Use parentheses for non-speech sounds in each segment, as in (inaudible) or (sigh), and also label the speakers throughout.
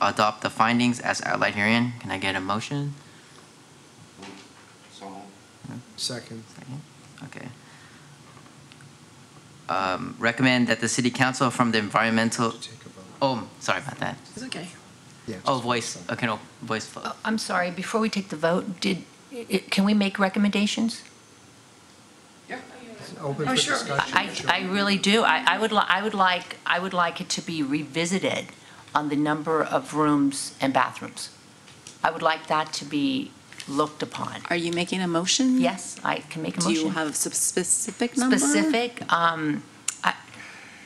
Speaker 1: adopt the findings as outlined herein. Can I get a motion?
Speaker 2: So moved.
Speaker 3: Second.
Speaker 1: Second? Okay. Um, Recommend that the city council from the environmental,
Speaker 3: Take a vote.
Speaker 1: oh, sorry about that.
Speaker 4: It's okay.
Speaker 3: Yeah, just-
Speaker 1: Oh, voice, okay, no, voice vote.
Speaker 5: Oh, I'm sorry, before we take the vote, did, i- i- can we make recommendations?
Speaker 3: Open
Speaker 4: Oh,
Speaker 3: for
Speaker 4: sure.
Speaker 3: discussion.
Speaker 5: I,
Speaker 3: sure.
Speaker 5: I really do. I, I would, li- I would like, I would like it to be revisited on the number of rooms and bathrooms. I would like that to be looked upon.
Speaker 4: Are you making a motion?
Speaker 5: Yes, I can make a
Speaker 4: Do
Speaker 5: motion.
Speaker 4: you have a sp- specific number?
Speaker 5: Specific, um, I,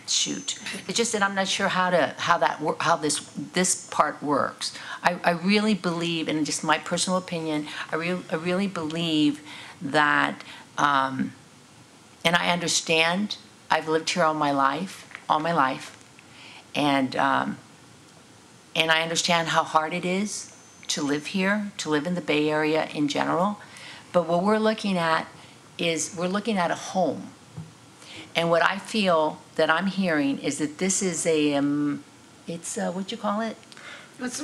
Speaker 5: shoot. It's just that I'm not sure how to, how that, wor- how this, this part works. I, I really believe, and just my personal opinion, I real, I really believe that, um, and I understand, I've lived here all my life, all my life. And, um, and I understand how hard it is to live here, to live in the Bay Area in general. But what we're looking at is we're looking at a home. And what I feel that I'm hearing is that this is a, um, it's a, what you call it?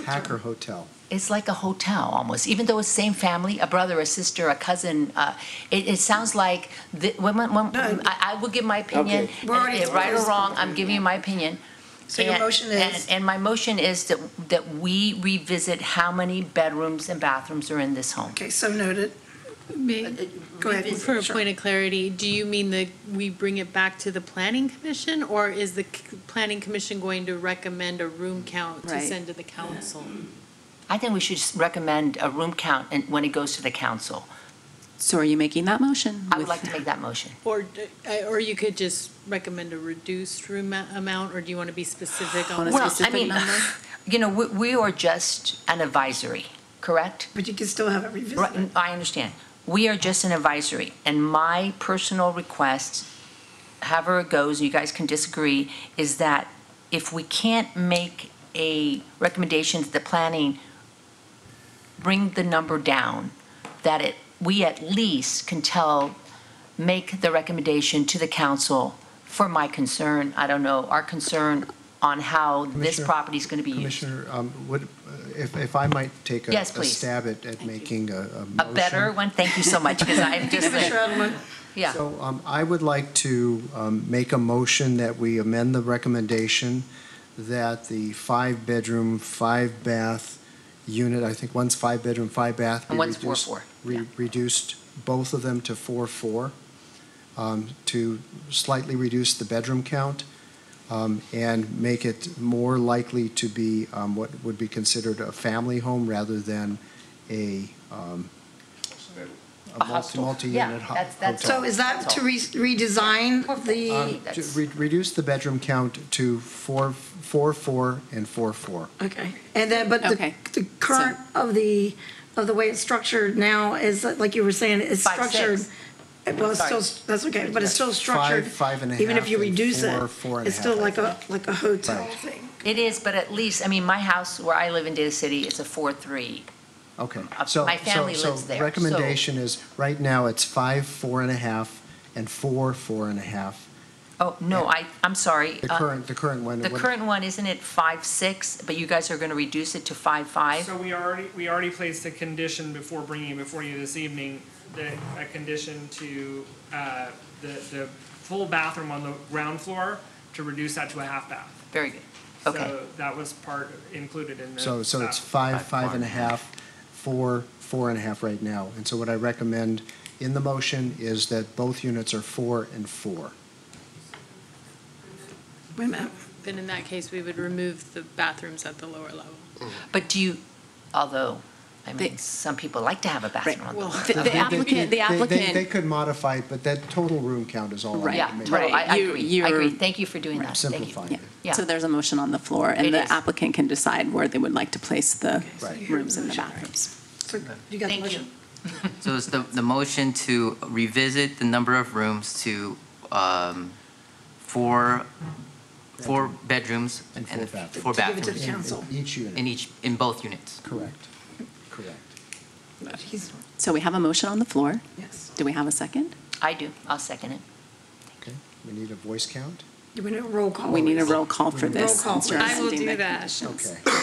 Speaker 3: Hacker Hotel.
Speaker 5: It's like a hotel almost, even though it's same family, a brother, a sister, a cousin. Uh, it, it sounds like the, when, when, when, I, I will give my opinion,
Speaker 6: Okay.
Speaker 5: and-
Speaker 6: We're already-
Speaker 5: and right or wrong. I'm giving you my opinion.
Speaker 6: So your
Speaker 5: And-
Speaker 6: motion
Speaker 5: and-
Speaker 6: is-
Speaker 5: and my motion is that that we revisit how many bedrooms and bathrooms are in this home.
Speaker 6: Okay, so noted.
Speaker 7: May-
Speaker 6: Go ahead.
Speaker 7: For a
Speaker 6: Sure.
Speaker 7: point of clarity, do you mean that we bring it back to the planning commission? Or is the c- planning commission going to recommend a room count to
Speaker 4: Right.
Speaker 7: send to the council?
Speaker 5: I think we should just recommend a room count and when it goes to the council.
Speaker 4: So are you making that motion?
Speaker 5: I would
Speaker 4: with-
Speaker 5: like to make that motion.
Speaker 7: Or, d- I- or you could just recommend a reduced room a- amount, or do you want to be specific on?
Speaker 4: On a
Speaker 5: Well, I
Speaker 4: specific
Speaker 5: mean,
Speaker 4: number?
Speaker 5: (laughs) You know, we, we are just an advisory, correct?
Speaker 6: But you can still have it
Speaker 5: Right,
Speaker 6: revisited.
Speaker 5: I understand. We are just an advisory, and my personal request, however it goes, you guys can disagree, is that if we can't make a recommendation to the planning, bring the number down, that it, we at least can tell, make the recommendation to the council for my concern, I don't know, our concern on how this
Speaker 3: Commissioner-
Speaker 5: property is going to be used.
Speaker 3: Commissioner, um, would, if, if I might take a a
Speaker 5: Yes, please.
Speaker 3: stab at, at making a, a motion.
Speaker 5: A better one, thank you so much, because I'm just, yeah.
Speaker 3: So um, I would like to um, make a motion that we amend the recommendation that the five-bedroom, five-bath unit, I think one's five-bedroom, five-bath. be
Speaker 5: And one's four,
Speaker 3: reduced-
Speaker 5: four,
Speaker 3: re-
Speaker 5: yeah.
Speaker 3: Reduced, both of them to four-four, um, to slightly reduce the bedroom count um, and make it more likely to be um, what would be considered a family home rather than a um, a
Speaker 5: A
Speaker 3: multi-
Speaker 5: hostel.
Speaker 3: multi-unit
Speaker 5: Yeah,
Speaker 3: ho-
Speaker 5: that's- that's-
Speaker 3: hotel.
Speaker 6: So is that to re- redesign
Speaker 3: Um,
Speaker 6: the,
Speaker 3: to
Speaker 5: That's-
Speaker 3: re- Reduce the bedroom count to four, four, four, and four, four.
Speaker 6: okay, and then, but the,
Speaker 4: Okay.
Speaker 6: the current of the, of the way it's structured now is, uh, like you were saying, it's
Speaker 5: Five,
Speaker 6: structured.
Speaker 5: six.
Speaker 6: Well, it's still, that's okay, but it's still structured.
Speaker 3: five and a
Speaker 6: Even if
Speaker 3: half,
Speaker 6: you
Speaker 3: and
Speaker 6: reduce it,
Speaker 3: four, four and a
Speaker 6: it's still
Speaker 3: half, I
Speaker 6: like a, like a hotel
Speaker 3: Right.
Speaker 6: thing.
Speaker 5: It is, but at least, I mean, my house where I live in Data City, it's a four-three.
Speaker 3: Okay.
Speaker 5: Uh,
Speaker 3: So
Speaker 5: my family
Speaker 3: so- so
Speaker 5: lives there, so-
Speaker 3: Recommendation is, right now, it's five, four and a half, and four, four and a half.
Speaker 5: Oh, no, I, I'm sorry.
Speaker 3: The
Speaker 5: uh,
Speaker 3: current, the current one.
Speaker 5: The
Speaker 3: what-
Speaker 5: current one, isn't it five-six, but you guys are gonna reduce it to five-five?
Speaker 8: So we already, we already placed a condition before bringing it before you this evening, the, a condition to, uh, the, the full bathroom on the ground floor to reduce that to a half bath.
Speaker 5: Very good, okay.
Speaker 8: So that was part included in the.
Speaker 3: So, so it's
Speaker 8: uh,
Speaker 3: five, five and a half, four, four and a half right now. And so what I recommend in the motion is that both units are four and four.
Speaker 6: Wait a minute,
Speaker 7: Then in that case, we would remove the bathrooms at the lower level.
Speaker 5: But do you, although, I mean,
Speaker 4: They-
Speaker 5: some people like to have a bathroom on the
Speaker 7: Well,
Speaker 4: The- The applicant,
Speaker 3: They-
Speaker 4: the
Speaker 3: they- They
Speaker 4: applicant,
Speaker 3: could modify it, but that total room count is all I'm
Speaker 4: Right,
Speaker 5: Yeah,
Speaker 3: making.
Speaker 5: totally, I I
Speaker 4: You-
Speaker 5: agree, I agree.
Speaker 4: you're-
Speaker 5: Thank you for doing that, thank you.
Speaker 3: Simplifying
Speaker 4: yeah.
Speaker 3: it.
Speaker 5: Yeah.
Speaker 4: So there's a motion on the floor,
Speaker 5: It
Speaker 4: and
Speaker 5: is.
Speaker 4: the applicant can decide where they would like to place the
Speaker 3: so Right.
Speaker 4: rooms and the bathrooms.
Speaker 6: so you got the
Speaker 5: Thank you.
Speaker 6: motion?
Speaker 1: So it's the, the motion to revisit the number of rooms to, um, four, four bedrooms.
Speaker 3: And four bathrooms.
Speaker 1: Four
Speaker 6: To give it to the
Speaker 1: bathrooms.
Speaker 3: In- in
Speaker 6: Council.
Speaker 3: Each
Speaker 1: In
Speaker 3: unit,
Speaker 1: each, in both units.
Speaker 3: correct, correct.
Speaker 6: He's-
Speaker 4: So we have a motion on the floor.
Speaker 6: Yes,
Speaker 4: Do we have a second?
Speaker 5: I do, I'll second it.
Speaker 3: Okay, we need a voice count?
Speaker 6: you want a roll call?
Speaker 4: We need a roll call for
Speaker 6: Roll
Speaker 4: this.
Speaker 6: call,
Speaker 4: since you're
Speaker 6: please.
Speaker 7: I will
Speaker 4: amending
Speaker 7: do
Speaker 4: the
Speaker 7: that.
Speaker 4: conditions.
Speaker 3: Okay.